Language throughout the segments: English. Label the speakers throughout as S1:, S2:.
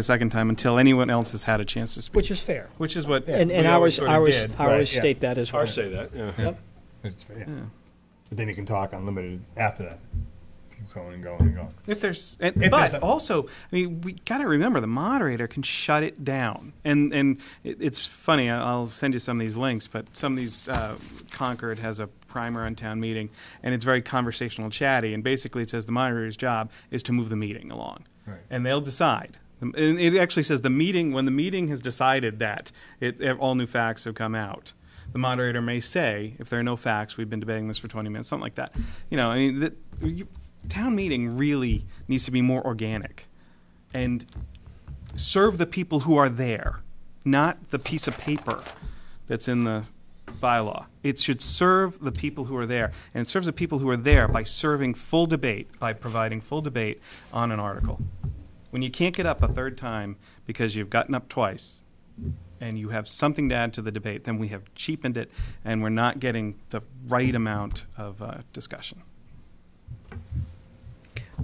S1: a second time until anyone else has had a chance to speak,
S2: which is fair.
S1: which is what.
S2: And, and
S3: we always
S2: ours,
S3: sorta
S2: ours,
S3: did,
S2: ours
S3: right, yeah.
S2: state that as well.
S3: Ours say that, yeah.
S2: Yep.
S3: It's- yeah. But then you can talk unlimited after that. Keep going and going and going.
S1: If there's, and,
S3: If
S1: but
S3: there's a-
S1: also, I mean, we got to remember the moderator can shut it down. And and it, it's funny. I- I'll send you some of these links, but some of these uh, Concord has a primer on town meeting, and it's very conversational, chatty, and basically it says the moderator's job is to move the meeting along,
S3: Right.
S1: and they'll decide. And it actually says the meeting when the meeting has decided that it, all new facts have come out. The moderator may say, if there are no facts, we've been debating this for 20 minutes, something like that. You know, I mean, that, you, town meeting really needs to be more organic and serve the people who are there, not the piece of paper that's in the bylaw. It should serve the people who are there, and it serves the people who are there by serving full debate, by providing full debate on an article. When you can't get up a third time because you've gotten up twice and you have something to add to the debate, then we have cheapened it and we're not getting the right amount of uh, discussion.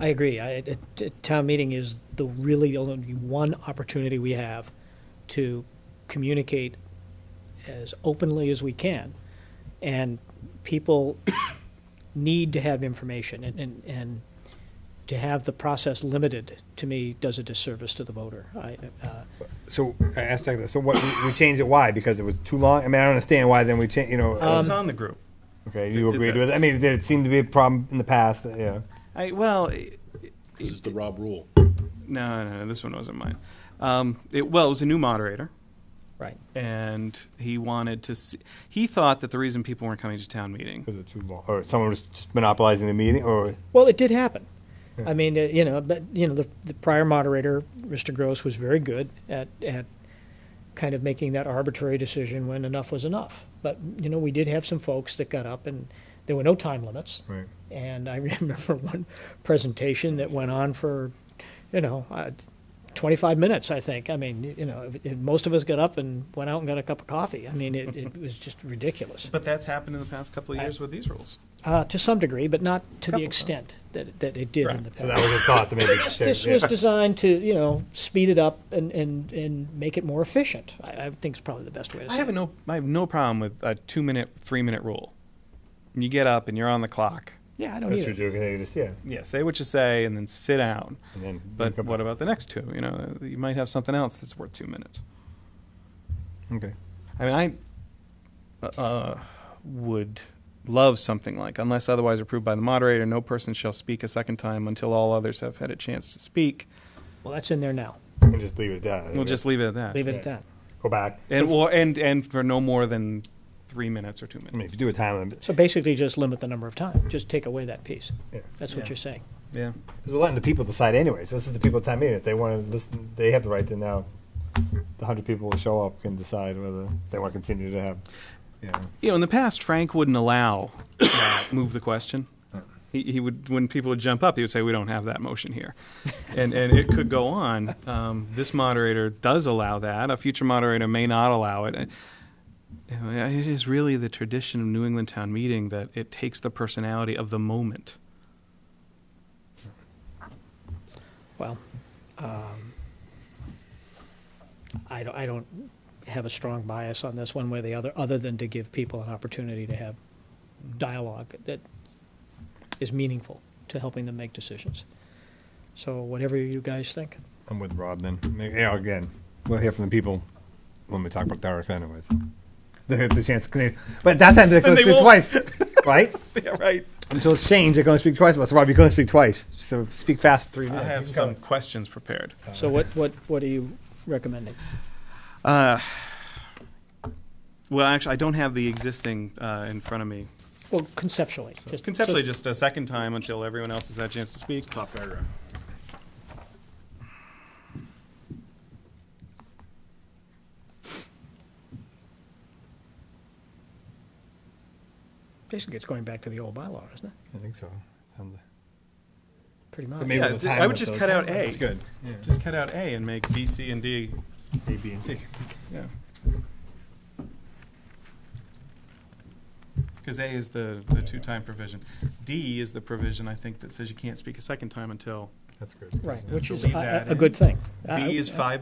S2: I agree. I, it, it- town meeting is the really only one opportunity we have to communicate as openly as we can, and people need to have information, and, and, and to have the process limited to me does a disservice to the voter. I, uh,
S3: So I asked Doug this. So what we, we changed it? Why? Because it was too long. I mean, I don't understand why. Then we changed. You know.
S1: I was on the group.
S3: okay, you
S1: did
S3: agreed with.
S1: this.
S3: it. I mean, there seemed to be a problem in the past. uh, Yeah.
S1: I, well, it-
S4: This is the Rob rule.
S1: no, no, no, this one wasn't mine. Um, it, well, it was a new moderator,
S2: right.
S1: and he wanted to. See, he thought that the reason people weren't coming to town meeting.
S3: Was it too long? Or someone was just monopolizing the meeting? Or
S2: Well, it did happen. I mean, uh, you know, but you know, the, the prior moderator, Mr. Gross, was very good at at kind of making that arbitrary decision when enough was enough. But you know, we did have some folks that got up, and there were no time limits.
S3: Right.
S2: And I remember one presentation that went on for, you know, uh, 25 minutes. I think. I mean, you know, if- if most of us got up and went out and got a cup of coffee. I mean, it, it was just ridiculous.
S1: But that's happened in the past couple of years with these rules.
S2: Uh, to some degree, but not to the
S1: Couple times.
S2: extent that, that it did in
S1: Right.
S2: the past.
S3: so that was a thought that maybe.
S2: This- This was designed to, you know, speed it up and, and, and make it more efficient. I, I think it's probably the best way to
S1: I
S2: say
S1: have
S2: it.
S1: no. I have no problem with a two-minute, three-minute rule. You get up and you're on the clock.
S2: Yeah, I don't
S3: That's true.
S2: either.
S3: Joe, can I just- Yeah.
S1: Yeah, say what you say, and then sit down.
S3: And then
S1: But what about the next two? You know, you might have something else that's worth two minutes.
S3: Okay.
S1: I mean, I uh, would love something like, unless otherwise approved by the moderator, no person shall speak a second time until all others have had a chance to speak.
S2: Well, that's in there now.
S3: And just leave it at that.
S1: We'll just leave it at that.
S2: Leave it at that.
S3: go back.
S1: And, or, and, and for no more than three minutes or two minutes.
S3: I mean, if you do a time limit,
S2: So basically, just limit the number of time. Just take away that piece.
S3: Yeah.
S2: That's what
S1: Yeah.
S2: you're saying.
S1: Yeah.
S3: Because we're letting the people decide anyways. This is the people time meeting. If they want to listen, they have the right to now. The hundred people who show up can decide whether they want to continue to have. You know,
S1: You know, in the past, Frank wouldn't allow uh, move the question. He, he would, when people would jump up, he would say, "We don't have that motion here," and and it could go on. Um, this moderator does allow that. A future moderator may not allow it. And, you know, It is really the tradition of New England town meeting that it takes the personality of the moment.
S2: Well, um, I don't, I don't have a strong bias on this one way or the other, other than to give people an opportunity to have dialogue that is meaningful to helping them make decisions. So whatever you guys think.
S3: I'm with Rob then. Maybe, yeah, again, we'll hear from the people when we talk about the article anyways. They have the chance to clean. But that time they're going
S1: they
S3: to speak
S1: won't.
S3: twice, right?
S1: Yeah, right.
S3: Until it's changed, they're going to speak twice. Well, so Rob, you're going to speak twice. So speak fast three
S1: I
S3: minutes.
S1: have
S3: Keep
S1: some
S3: going.
S1: questions prepared.
S2: So what, what, what are you recommending?
S1: Well, actually, I don't have the existing uh, in front of me.
S2: Well, conceptually. just-
S1: Conceptually, just a second time until everyone else has had a chance to speak.
S4: Top paragraph.
S2: Basically, it's going back to the old bylaw, isn't it?
S3: I think so. Sounds-
S2: Pretty
S3: but
S2: much.
S3: maybe
S1: Yeah,
S3: with
S1: I
S3: time
S1: would
S3: limit,
S1: just
S3: though,
S1: cut
S3: it's-
S1: out A.
S3: It's good. Yeah.
S1: Just cut out A and make B, C, and D.
S3: A, B, and C.
S1: Yeah. Because A is the, the two-time provision. D is the provision, I think, that says you can't speak a second time until
S3: That's good.
S2: Right, which
S1: So
S2: is
S1: leave
S2: a-
S1: that
S2: a, a
S1: in.
S2: good thing. Uh, I-
S1: B is
S2: I-
S1: five